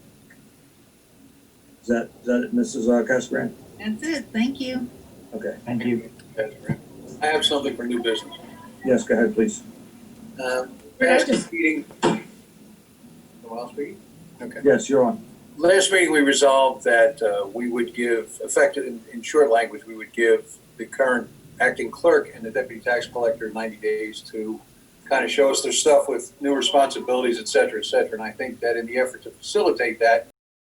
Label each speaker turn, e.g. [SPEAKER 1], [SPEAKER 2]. [SPEAKER 1] Is that, is that it, Mrs. uh, Casper?
[SPEAKER 2] That's it, thank you.
[SPEAKER 1] Okay,
[SPEAKER 3] Thank you.
[SPEAKER 4] I have something for new business.
[SPEAKER 1] yes, go ahead, please.
[SPEAKER 4] Um, Last meeting. Who else speaking? Okay.
[SPEAKER 1] Yes, you're on.
[SPEAKER 4] Last meeting, we resolved that uh, we would give, effective, in- in short language, we would give the current acting clerk and the deputy tax collector 90 days to kind of show us their stuff with new responsibilities, et cetera, et cetera. And I think that in the effort to facilitate that,